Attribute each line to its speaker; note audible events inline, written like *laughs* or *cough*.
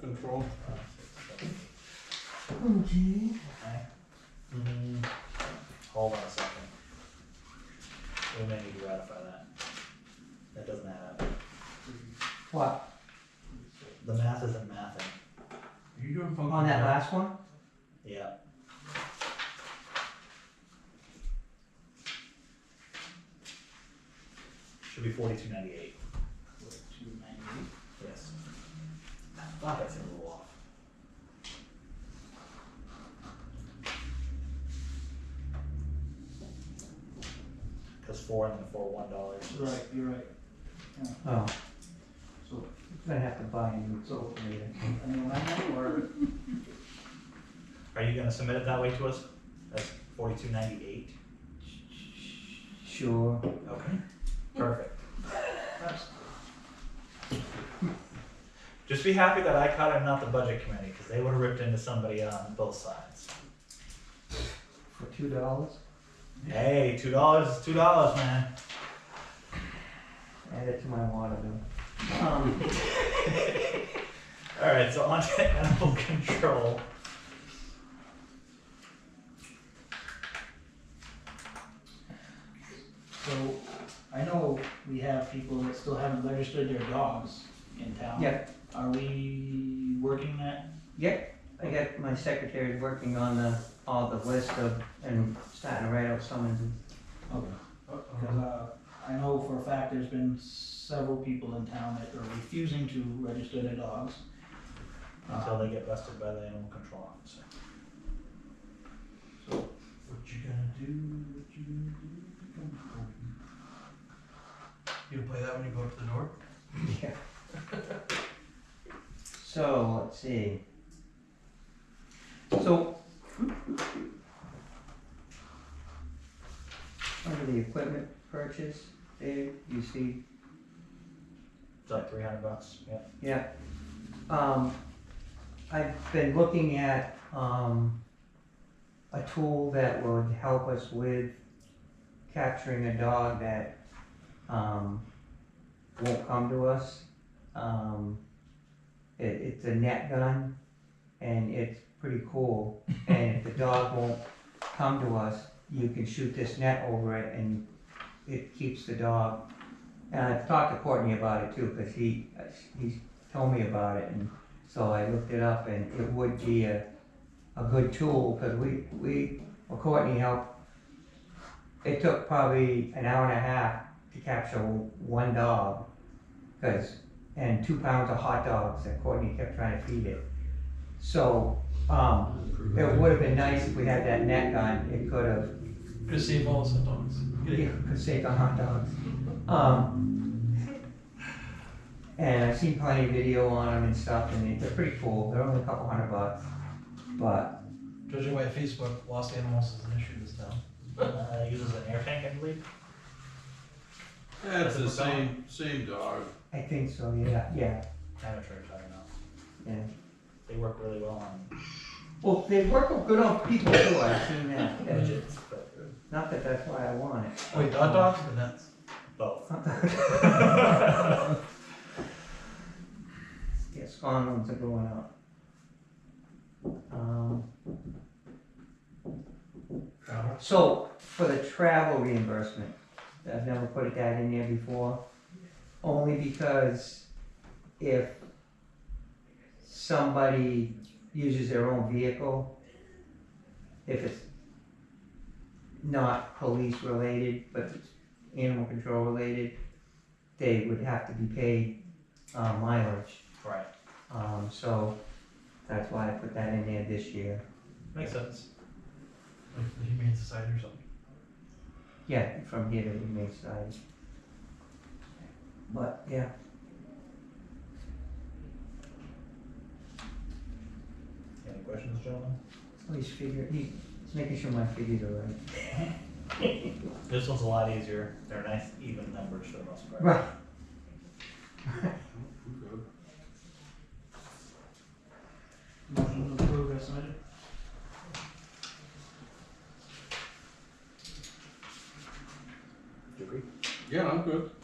Speaker 1: control.
Speaker 2: Okay.
Speaker 3: Mm, hold on a second. We may need to ratify that. That doesn't add up.
Speaker 2: What,
Speaker 3: The math isn't mathing.
Speaker 1: You doing function?
Speaker 2: on Oh, that last one?
Speaker 3: Yeah. Should be forty-two ninety-eight. Yes. I thought I said a little off. Cause four and then four one dollars.
Speaker 4: Right, you're right.
Speaker 2: Oh,
Speaker 4: So,
Speaker 2: I'm gonna have to buy a new calculator.
Speaker 4: I mean, I know, or,
Speaker 3: Are you gonna submit it that way to us? That's forty-two ninety-eight?
Speaker 2: Sure.
Speaker 3: Okay. Perfect.
Speaker 4: that's,
Speaker 3: Just be happy that I caught it and not the budget committee, cause they would've ripped into somebody on both sides.
Speaker 2: For two dollars?
Speaker 3: Hey, two dollars is two dollars, man.
Speaker 2: Add it to my water bill.
Speaker 4: um,
Speaker 3: Alright, so on to *laughs* animal control.
Speaker 4: so, I know we have people that still haven't registered their dogs in town.
Speaker 2: Yeah.
Speaker 4: Are we working that?
Speaker 2: Yep, I got my secretary working on the, all the list of, and starting to write out some of them. *laughs*
Speaker 4: Okay. Because,
Speaker 1: Mm-hmm.
Speaker 4: uh, I know for a fact there's been several people in town that are refusing to register their dogs. Uh,
Speaker 3: Until they get busted by the animal control officer.
Speaker 1: What you gonna do, what you gonna do? Come on. You gonna play that when you go up to the door?
Speaker 2: Yeah. So, let's see. So. Under the equipment purchase, Dave, you see,
Speaker 3: It's like three hundred bucks, yeah.
Speaker 2: yeah. Um, I've been looking at, um, a tool that would help us with capturing a dog that, um, won't come to us. Um, it, it's a net gun, and it's pretty cool. And if the dog won't come to us, you can shoot this net over it, and it keeps the dog. And I've talked to Courtney about it too, because he, uh, he told me about it, and so I looked it up, and it would be a, a good tool, because we, we, well, Courtney helped. It took probably an hour and a half to capture one dog, because and two pounds of hot dogs that Courtney kept trying to feed it. So, um, it would have been nice if we had that net gun, it could have,
Speaker 1: Gonna save all the dogs.
Speaker 2: it could save the hot dogs. Um, and I've seen plenty of video on them and stuff, and they're pretty cool, they're only a couple hundred bucks, but,
Speaker 1: Judging by Facebook, lost animals is an issue in this town.
Speaker 3: Uh, uses an air tank, I believe.
Speaker 5: Yeah, it's
Speaker 3: That's
Speaker 5: the
Speaker 3: the dog.
Speaker 5: same, same dog.
Speaker 2: I think so, yeah, yeah,
Speaker 3: Amateur, I don't know.
Speaker 2: yeah.
Speaker 3: They work really well on
Speaker 2: Well, they work good on people too, I've seen that, Yeah.
Speaker 3: budgets, but
Speaker 2: not that that's why I want it.
Speaker 1: Wait, hot dogs or nuts?
Speaker 3: both.
Speaker 2: Yeah, spawn rooms are going up. Um, so, for the travel reimbursement, I've never put that in there before, only because if somebody uses their own vehicle, if it's not police related, but it's animal control related, they would have to be paid, uh, mileage.
Speaker 3: Right,
Speaker 2: Um, so that's why I put that in there this year.
Speaker 3: makes sense.
Speaker 1: Like the Humane Society or something?
Speaker 2: Yeah, from here to the main side. But yeah,
Speaker 3: Any questions, gentlemen?
Speaker 2: he's figure he's making sure my figures are right.
Speaker 3: This one's a lot easier. They're nice, even numbers for the most part.
Speaker 2: Right.
Speaker 4: Motion to approve as submitted?
Speaker 3: Do you agree?
Speaker 5: Yeah, I'm good.